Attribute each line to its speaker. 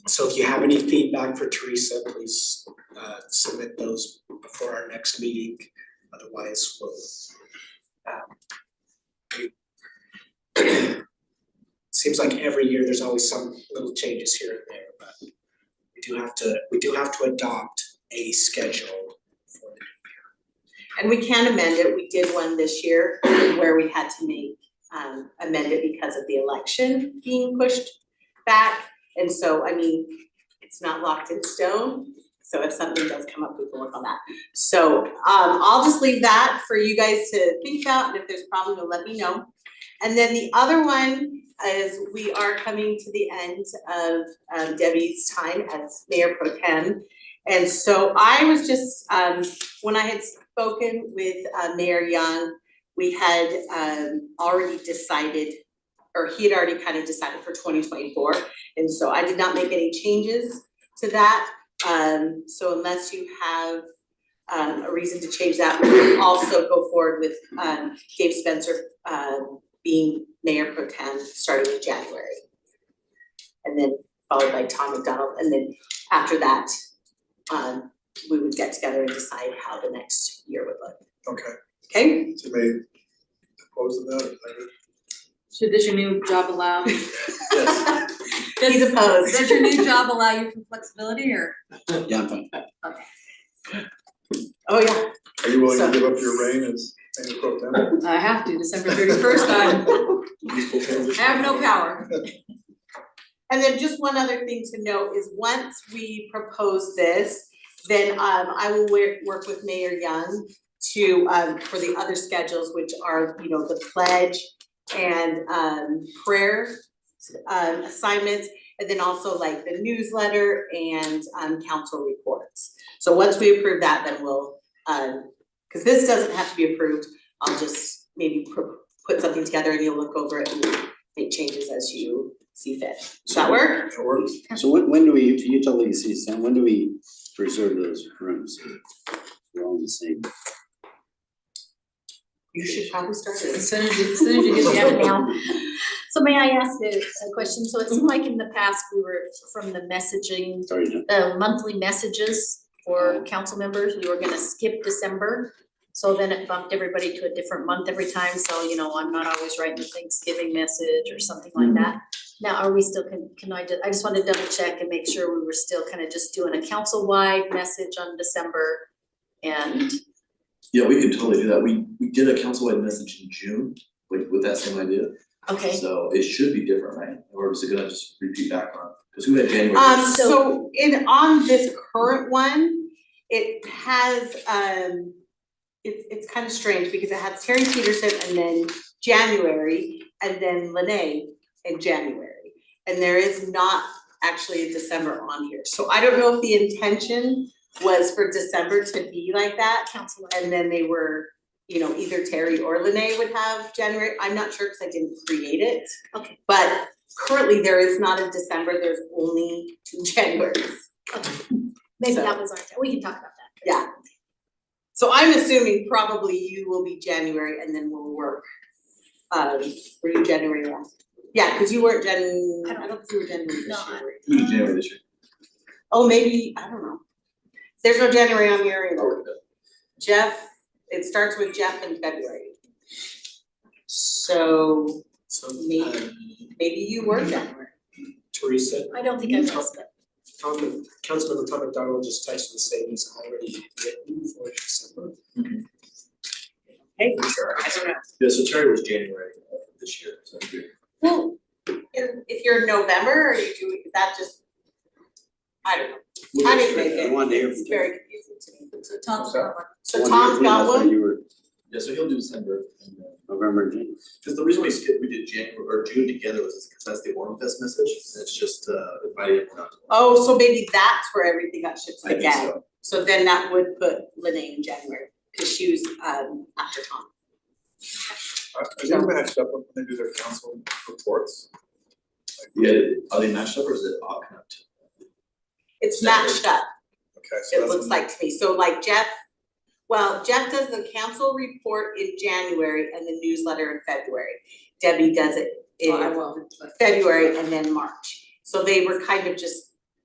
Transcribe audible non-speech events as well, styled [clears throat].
Speaker 1: So if you have any feedback for Teresa, please uh submit those before our next meeting, otherwise we'll um, [clears throat] seems like every year there's always some little changes here and there, but we do have to, we do have to adopt a schedule for the
Speaker 2: And we can amend it, we did one this year where we had to make, um, amend it because of the election being pushed back. And so, I mean, it's not locked in stone, so if something does come up, we can work on that. So, um, I'll just leave that for you guys to think about, and if there's a problem, you'll let me know. And then the other one is we are coming to the end of um, Debbie's time as mayor pro tem. And so I was just, um, when I had spoken with uh, Mayor Young, we had um, already decided, or he had already kind of decided for twenty twenty-four. And so I did not make any changes to that. Um, so unless you have um, a reason to change that, we can also go forward with um, Dave Spencer um, being mayor pro tem starting in January. And then followed by Tom McDonald, and then after that, um, we would get together and decide how the next year would look,
Speaker 3: Okay,
Speaker 2: okay?
Speaker 3: so may oppose to that, I
Speaker 4: So does your new job [laughs] allow?
Speaker 3: guess.
Speaker 2: [laughs] He's opposed.
Speaker 4: [laughs] Does your new job allow you some flexibility or?
Speaker 5: Yeah, I'm fine.
Speaker 2: Oh, yeah,
Speaker 3: Are you willing
Speaker 2: So-
Speaker 3: to give up your reign as mayor pro tem?
Speaker 4: I have to, December thirty first, I
Speaker 3: Peaceful transition.
Speaker 4: have no power.
Speaker 2: and then just one other thing to note is once we propose this, then um I will work work with Mayor Young to um for the other schedules, which are, you know, the pledge and um prayer um assignments, and then also like the newsletter and um council reports. So once we approve that, then we'll um, cause this doesn't have to be approved, I'll just maybe pro- put something together and you'll look over it and make changes as you see fit. Does that work?
Speaker 3: That works.
Speaker 5: So when, when do we, if utility cease, then when do we preserve those rooms? We're all in the same.
Speaker 2: You should probably start
Speaker 4: As
Speaker 2: it.
Speaker 4: soon as you, as soon as you [laughs] get the email.
Speaker 6: [laughs] So may I ask a, a question? So it seemed like in the past, we were from the messaging,
Speaker 5: Sorry, John.
Speaker 6: the monthly messages for council members, we were gonna skip December. So then it bumped everybody to a different month every time, so you know, I'm not always writing a Thanksgiving message or something like that. Now, are we still, can, can I, ju- I just wanna double check and make sure we were still kind of just doing a council-wide message on December and
Speaker 7: Yeah, we could totally do that. We we did a councilwide message in June, like with that same idea.
Speaker 6: Okay,
Speaker 7: So it should be different, right? Or is it gonna just repeat back on? Cause who had January?
Speaker 2: Um,
Speaker 6: So-
Speaker 2: so in, on this current one, it has, um, it's, it's kind of strange because it has Terry Peterson and then January and then Lene in January. And there is not actually a December on here. So I don't know if the intention was for December to be like that.
Speaker 6: council,
Speaker 2: And then they were, you know, either Terry or Lene would have January, I'm not sure because I didn't create it.
Speaker 6: Okay.
Speaker 2: But currently, there is not a December, there's only two [laughs] Januarys.
Speaker 6: maybe
Speaker 2: So-
Speaker 6: that was our, we can talk about that.
Speaker 2: So I'm assuming probably you will be January and then we'll work. Um, were you January last? Yeah, because you weren't Jan,
Speaker 6: I
Speaker 2: I
Speaker 6: don't-
Speaker 2: don't think you were January
Speaker 6: No,
Speaker 2: this year.
Speaker 6: I-
Speaker 2: were you?
Speaker 7: Who did January this year?
Speaker 2: Oh, maybe, I don't know. There's no January on here
Speaker 7: I'll
Speaker 2: either.
Speaker 7: look it up.
Speaker 2: Jeff, it starts with Jeff in February. So
Speaker 1: So uh
Speaker 2: maybe, maybe you were January.
Speaker 1: Teresa,
Speaker 6: I don't think I was, but
Speaker 1: Tom, Councilmember Tom McDonald just texted me saying he's already written for December.
Speaker 2: Hey, sure, I don't know.
Speaker 7: Yeah, so Terry was January uh, this year, so that's good.
Speaker 2: Well, if if you're in November, or you do, is that just, I don't know,
Speaker 5: We'll
Speaker 2: I
Speaker 5: get
Speaker 2: didn't
Speaker 5: straight
Speaker 2: make
Speaker 5: to that.
Speaker 2: it.
Speaker 5: I wanted to hear from
Speaker 2: it's very confusing to me.
Speaker 4: So Tom's got one.
Speaker 2: So
Speaker 5: One
Speaker 2: Tom's
Speaker 5: year,
Speaker 2: got
Speaker 5: that's when
Speaker 2: one,
Speaker 5: You were
Speaker 7: Yeah, so he'll do December and then,
Speaker 5: November, and January.
Speaker 7: cause the reason we skipped, we did January or June together was because that's the Orem Fest message. and It's just uh inviting everyone out. to-
Speaker 2: oh, so maybe that's where everything got shifted
Speaker 7: I think
Speaker 2: again.
Speaker 7: so.
Speaker 2: So then that would put Lene in January, because she was um after Tom.
Speaker 3: Are are they matched up when they do their council reports?
Speaker 7: Yeah, are they matched up or is it all kind of?
Speaker 2: It's matched up,
Speaker 3: Okay, so
Speaker 2: it
Speaker 3: that's
Speaker 2: looks
Speaker 3: when-
Speaker 2: like to me, so like Jeff, well, Jeff does the council report in January and the newsletter in February. Debbie does it in
Speaker 4: Oh, I won't. but-
Speaker 2: February and then March. So they were kind of just